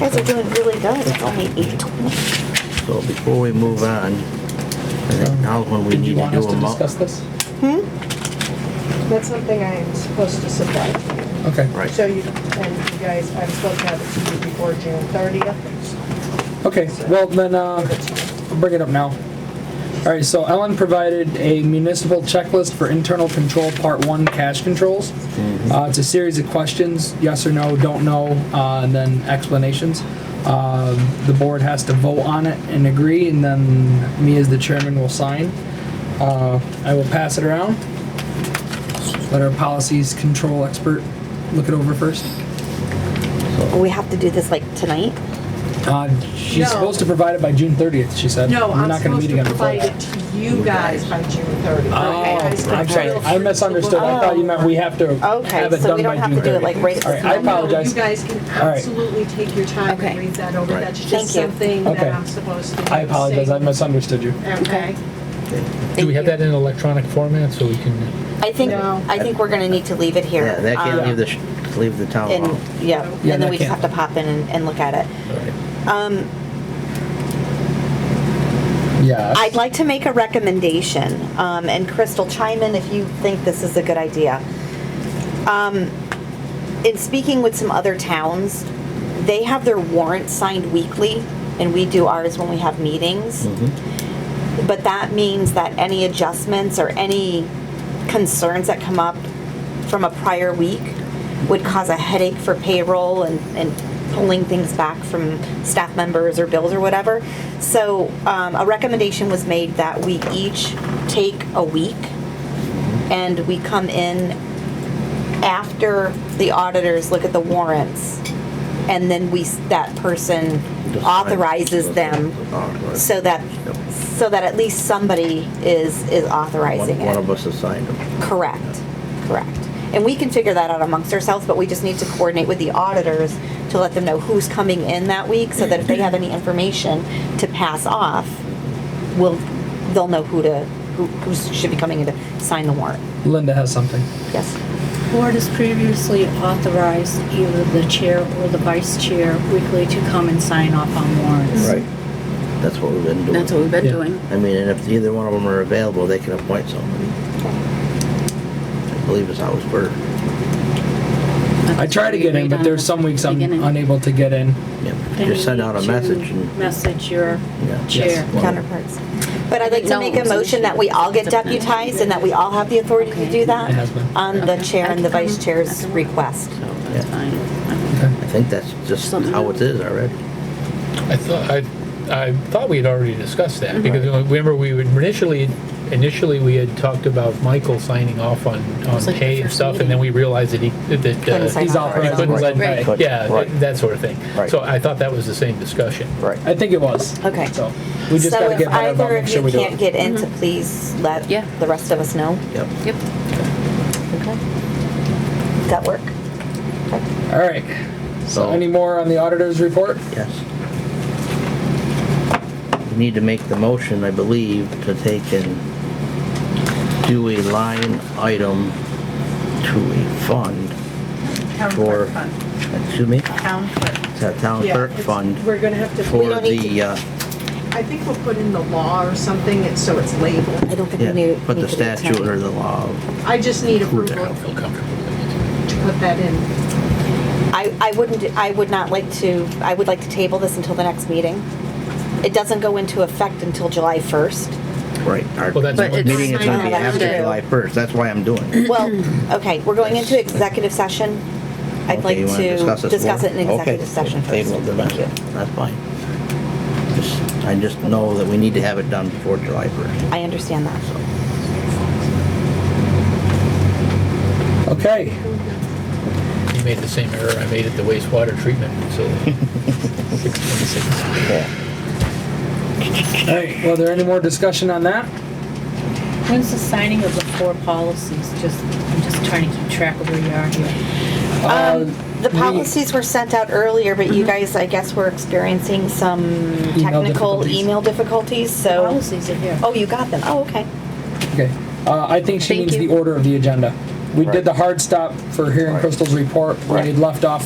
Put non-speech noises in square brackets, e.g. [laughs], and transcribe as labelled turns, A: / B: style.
A: Guys are doing really good. It's only eight twenty.
B: So before we move on, I think now's when we
C: Um, Did you
B: need to
C: want
B: do
C: us
B: a
C: to
B: mo-
C: discuss this?
D: That's something I am supposed to supply to you.
C: Okay.
D: So
B: Right,
D: you, and you guys, I'm supposed to have it to you before June 30th.
C: Okay, well, then, uh, I'll bring it up now. All right, so Ellen provided a municipal checklist for internal control, part one, cash controls. Uh, it's a series of questions, yes or no, don't know, uh, and then explanations. Um the board has to vote on it and agree, and then me as the chairman will sign. Uh, I will pass it around. Let our policies control expert look it over first.
A: We have to do this like tonight.
C: Uh, she's
D: No.
C: supposed to provide it by June thirtieth, she said.
D: No,
C: We're
D: I'm
C: not gonna
D: supposed
C: meet
D: to
C: again before
D: provide
C: that.
D: it to you guys by June 30th.
C: Oh, I'm sorry, I misunderstood,
D: Oh,
C: I thought you meant we have to
A: Okay,
C: have it
A: so we don't
C: done by
A: have
C: June
A: to do it like
C: thirtieth.
A: right at
C: All
A: this
C: right, I
A: moment.
D: No,
C: apologize.
D: You guys can
C: All right.
D: absolutely take your time
A: Okay.
D: and read that over.
B: Right.
D: That's
A: Thank
D: just
A: you.
D: something
C: Okay.
D: that I'm supposed to.
C: I apologize, I misunderstood you.
D: Okay.
E: Do we have that in electronic format so we can,
A: I think,
D: No.
A: I think we're gonna need to leave it here.
B: yeah, that
A: um,
B: can't leave the, sh- leave the town hall.
A: And, yeah, and
C: Yeah,
A: then
C: that
A: we just have
C: can't-
A: to pop in and, and look at it. Um,
C: Yeah.
A: I'd like to make a recommendation, um, and Crystal, chime in if you think this is a good idea. Um, in speaking with some other towns, they have their warrants signed weekly, and we do ours when we have meetings.
B: Mm-hmm.
A: But that means that any adjustments or any concerns that come up from a prior week would cause a headache for payroll and, and pulling things back from staff members or bills or whatever. So um, a recommendation was made that we each take a week and we come in after the auditors look at the warrants and then we, s- that person
B: Just sign.
A: authorizes them
B: Authorize.
A: so that,
B: Yep.
A: so that at least somebody is, is authorizing
B: One one
A: it.
B: of us assigned them.
A: Correct, correct. And we can figure that out amongst ourselves, but we just need to coordinate with the auditors to let them know who's coming in that week, so that if they have any information to pass off, we'll, they'll know who to, who, who should be coming in to sign the warrant.
C: Linda has something.
A: Yes?
F: Board has previously authorized either the chair or the vice chair weekly to come and sign off on warrants.
B: Right. That's what we've been doing.
G: That's what we've been
C: Yeah.
G: doing.
B: I mean, and if either one of them are available, they can appoint somebody. I believe it's how it's worded.
C: I try to get in, but there's some weeks I'm
G: Beginning.
C: unable to get in.
B: Yeah,
G: Then you
B: Just send out a
G: need to
B: message and.
G: Message your
B: Yeah.
G: chair.
B: Yes.
A: counterparts. But I'd like to
G: No,
A: make a
G: it's an
A: motion that
G: issue.
A: we all get
G: It's a plan.
A: deputized and that we all have the authority to
G: Okay.
A: do that
C: It has been.
A: on the
G: Okay.
A: chair
G: I
A: and
G: can
A: the vice
G: come. I
A: chair's
G: can-
A: request.
G: So
B: Yeah.
G: that's fine.
C: Okay.
B: I think that's just
G: Something
B: how it
G: else.
B: is already.
E: I thought, I, I thought we had already discussed
G: Mm-hmm.
E: that because remember we would initially, initially we had talked about Michael signing off on, on
G: was like the
E: pay and
G: first
E: stuff and then
G: meeting.
E: we realized that he, that.
A: Couldn't
E: uh,
A: sign
C: He's
A: off.
C: off
E: he
C: right
E: couldn't
C: now.
E: sign-
G: Right.
B: Right.
E: Yeah,
B: Right.
E: that sort of thing.
B: Right.
E: So I thought that was the same discussion.
B: Right.
C: I think it was.
A: Okay.
C: So we just
A: So
C: gotta
A: if
C: get better about
A: either
C: making
A: of
C: sure
A: you
C: we do
A: can't
C: it.
A: get in, to please let
G: Yeah.
A: the rest of us know.
B: Yep.
G: Yep.
A: Okay. Does that work?
C: All right. So
B: So-
C: any more on the auditor's report?
B: Yes. We need to make the motion, I believe, to take and do a line item to a fund for, excuse me,
H: Town clerk.
B: it's a town
D: Yeah,
B: clerk
D: it's-
B: fund
D: We're gonna have to,
B: for
A: don't need
B: the, uh,
D: I think we'll put in the law or something, it's- so it's labeled.
A: I don't think we
B: yeah,
A: need.
B: put the
A: need to do it
B: statute
A: tonight.
B: or the law.
D: I just need
E: Which I don't
D: approval
E: feel comfortable with.
D: to put that in.
A: I, I wouldn't, I would not like to, I would like to table this until the next meeting. It doesn't go into effect until July 1st.
B: Right. Our
E: Well, that's- But it's
B: meeting is gonna be
A: not
B: after
A: true.
B: July first, that's why I'm doing it.
A: Well, okay, we're going into executive session. I'd
B: Okay,
A: like
B: you wanna
A: to
B: this
A: discuss
B: more?
A: it in executive
B: Okay,
A: session first.
B: table it then.
A: Thank you.
B: That's fine. Just, I just know that we need to have it done before July first,
A: I understand that.
B: so.
C: Okay.
E: You made the same error I made at the wastewater treatment facility.
B: [laughs]
E: 626.
C: All right. Well, there any more discussion on that?
G: When's the signing of the four policies? Just, I'm just trying to keep track of where you are here.
C: Uh,
A: Um, The
C: we- Mm-hmm.
A: policies were sent out earlier, but you guys, I guess, were experiencing some technical
C: difficulties.
A: email difficulties, so.
G: Policies are here.
A: Oh, you got them. Oh, okay.
C: Okay, uh, I think she
G: Thank
C: needs
G: you.
C: the order of the agenda. We
B: Right.
C: did the hard stop for hearing
B: Right.
C: Crystal's report, where
B: Right.
C: we had left off